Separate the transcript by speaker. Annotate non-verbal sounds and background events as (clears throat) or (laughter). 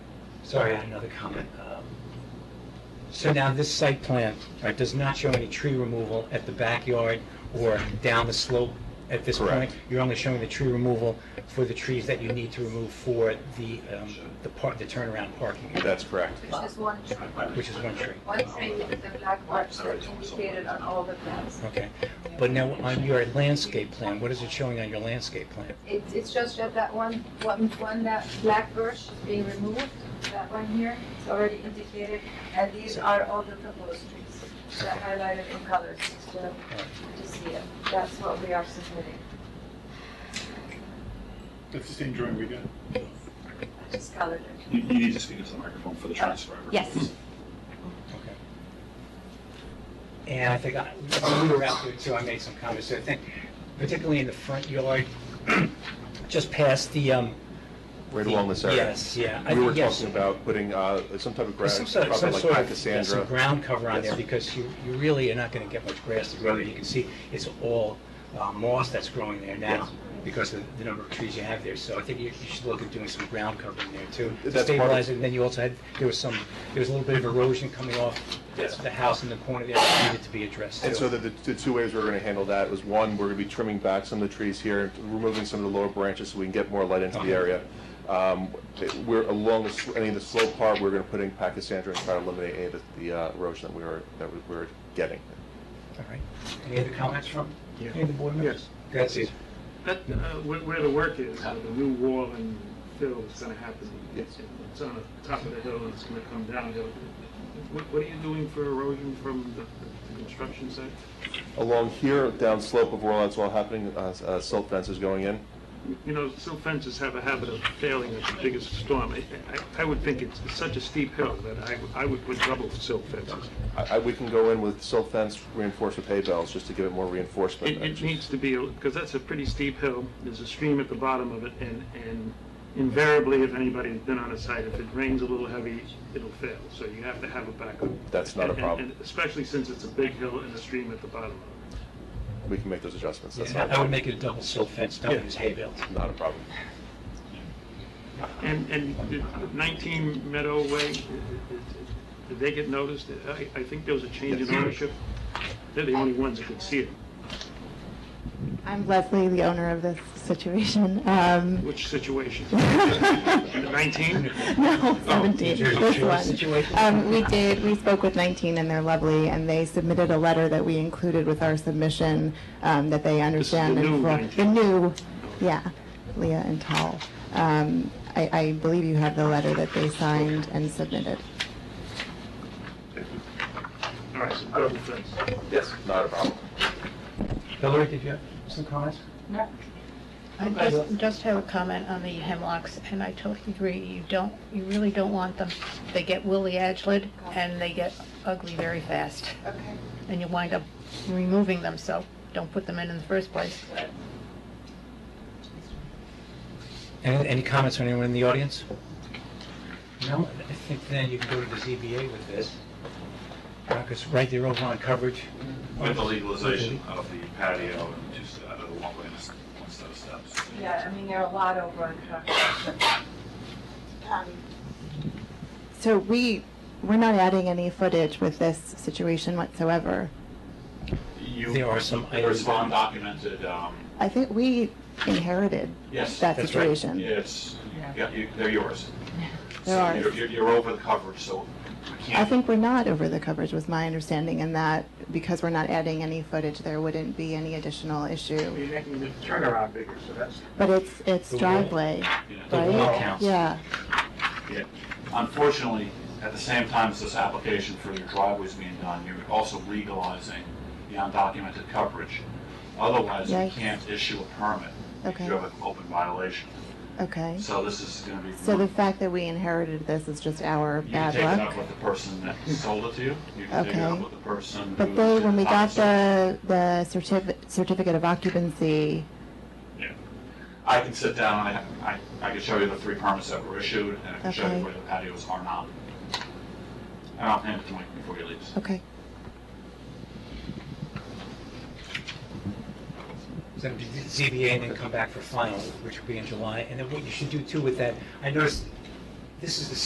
Speaker 1: Sorry, I had another comment. Um, So now this site plan, right, does not show any tree removal at the backyard or down the slope at this point?
Speaker 2: Correct.
Speaker 1: You're only showing the tree removal for the trees that you need to remove for the, um, the part, the turnaround parking,
Speaker 2: That's correct.
Speaker 3: Which is one tree,
Speaker 1: which is one tree.
Speaker 3: one tree with the black marks that indicated on all the plans.
Speaker 1: Okay. But now on your landscape plan, what is it showing on your landscape plan?
Speaker 3: It, it's just that that one, one, one, that black birch is being removed, that one here, it's already indicated, and these are all the proposed trees that highlighted in colors, just to, to see it. That's what we are submitting.
Speaker 4: That's the same drawing we got.
Speaker 3: I just colored it.
Speaker 2: You you need to speak into the microphone for the transcriber.
Speaker 5: Yes.
Speaker 1: Okay. And I think, I- when we were out there too, I made some comments, so I think particularly in the front yard, (clears throat) just past the, um,
Speaker 2: Right along this area.
Speaker 1: Yes, yeah. I
Speaker 2: We were
Speaker 1: think, yes.
Speaker 2: talking about putting uh, some type of
Speaker 1: There's
Speaker 2: grass,
Speaker 1: some sort of, some
Speaker 2: probably like
Speaker 1: sort
Speaker 2: high
Speaker 1: of, yeah, some
Speaker 2: Cassandra.
Speaker 1: ground cover on there,
Speaker 2: Yes.
Speaker 1: because you, you really are not gonna get much grass to grow there. You can see it's all uh, moss that's growing there now, because of the number of trees you have there. So I think you you should look at doing some ground cover in there too, to
Speaker 2: That's part of-
Speaker 1: stabilize it. And then you also had, there was some, there was a little bit of erosion coming off the the house in the corner there that needed to be addressed
Speaker 2: And so
Speaker 1: too.
Speaker 2: the, the the two ways we're going to handle that was, one, we're going to be trimming back some of the trees here, removing some of the lower branches so we can get more light into the area. Um, it- We're along, the sl- any of the slope part, we're going to put in Pachysandra and try to eliminate any of the- the uh, erosion that we were, that we were getting.
Speaker 1: All right. Any other comments from any of the board members? That's it.
Speaker 6: That, uh, where, where the work is, uh, the new wall and fill is gonna happen.
Speaker 2: Yes.
Speaker 6: It's on the top of the hill and it's gonna come downhill. What, what are you doing for erosion from the the construction site?
Speaker 2: Along here, down slope of where that's all happening, uh, uh, silt fence is going in.
Speaker 6: You know, silt fences have a habit of failing at the biggest storm. I, I, I would think it's such a steep hill that I, would- I would put double silt fences.
Speaker 2: I, I, we can go in with silt fence reinforced with hay bales, just to give it more reinforcement.
Speaker 6: It, it needs to be, because that's a pretty steep hill, there's a stream at the bottom of it, and, and invariably, if anybody's been on a site, if it rains a little heavy, it'll fail, so you have to have a backup.
Speaker 2: That's not a
Speaker 6: And- and-
Speaker 2: problem.
Speaker 6: and Especially since it's a big hill and a stream at the bottom of it.
Speaker 2: We can make those adjustments, that's
Speaker 1: Yeah,
Speaker 2: not,
Speaker 1: I would make it a double silt fence, not use hay bales.
Speaker 2: not a problem.
Speaker 6: And, and the 19 Meadow Way, i- i- did they get noticed? I, I think there was a change in ownership. They're the only ones that could see it,
Speaker 5: I'm Leslie, the owner of this situation. Um,
Speaker 6: (laughs)
Speaker 2: (laughs)
Speaker 6: which situation?
Speaker 5: No,
Speaker 6: 19? Oh,
Speaker 5: 17,
Speaker 1: Jersey
Speaker 5: this
Speaker 1: Shore
Speaker 5: one.
Speaker 1: situation?
Speaker 5: Um, We did, we spoke with 19, and they're lovely, and they submitted a letter that we included with our submission um, that they
Speaker 6: is the
Speaker 5: understand. and
Speaker 6: new
Speaker 5: for-
Speaker 6: 19.
Speaker 5: The new, yeah, Leah and Tal. Um, I I believe you have the letter that they signed and submitted.
Speaker 6: All right, so double fence.
Speaker 2: Yes, not a problem.
Speaker 1: Hillary, did you have some comments?
Speaker 7: I just, just have a comment on the hemlocks, and I totally agree, you don't, you really don't want them. They get willy edgeled, and they get ugly very fast,
Speaker 3: Okay.
Speaker 7: and you wind up removing them, so don't put them in in the first place.
Speaker 1: Any, any comments from anyone in the audience? No, I think then you can go to the ZBA with this. Because right there over on coverage.
Speaker 8: With the legalization of the patio and two, st- uh, the walkway and s- one set of steps.
Speaker 3: Yeah, I mean, there are a lot over on Concord.
Speaker 5: So we, we're not adding any footage with this situation whatsoever.
Speaker 8: You-
Speaker 1: There are some
Speaker 8: There was
Speaker 1: items-
Speaker 8: undocumented, um,
Speaker 5: I think we inherited
Speaker 8: Yes,
Speaker 5: that
Speaker 1: that's right.
Speaker 5: situation.
Speaker 8: it's, yeah, you, they're yours.
Speaker 5: There
Speaker 8: So
Speaker 5: are.
Speaker 8: You're, you're- you're over the coverage, so we
Speaker 5: I
Speaker 8: can't.
Speaker 5: think we're not over the coverage, was my understanding, and that because we're not adding any footage, there wouldn't be any additional issue.
Speaker 6: You're making the turnaround bigger, so that's
Speaker 5: But it's, it's
Speaker 1: The wall.
Speaker 5: driveway,
Speaker 8: Yeah.
Speaker 1: The wall
Speaker 5: right?
Speaker 1: counts.
Speaker 5: Yeah,
Speaker 8: Yeah. Unfortunately, at the same time as this application for your driveway's being done, you're also legalizing the undocumented coverage. Otherwise, you
Speaker 5: Yikes.
Speaker 8: can't issue a permit. if
Speaker 5: Okay.
Speaker 8: You have an open violation.
Speaker 5: okay.
Speaker 8: So this is gonna be.
Speaker 5: So the fact that we inherited this is just our
Speaker 8: You can
Speaker 5: bad
Speaker 8: take it up
Speaker 5: luck.
Speaker 8: with the person that sold it to you. You can take it up
Speaker 5: Okay.
Speaker 8: with the person.
Speaker 5: But
Speaker 8: who
Speaker 5: they,
Speaker 8: did
Speaker 5: when we got
Speaker 8: opposite.
Speaker 5: the, the certificate, certificate of occupancy,
Speaker 8: Yeah. I can sit down, I, I, I can show you the three permits that were issued, and I can show
Speaker 5: Okay.
Speaker 8: you where the patios are not. And I'll hand it to Mike before he leaves.
Speaker 5: okay.
Speaker 1: So do the ZBA and then come back for final, which will be in July. And then what you should do too with that, I noticed, this is the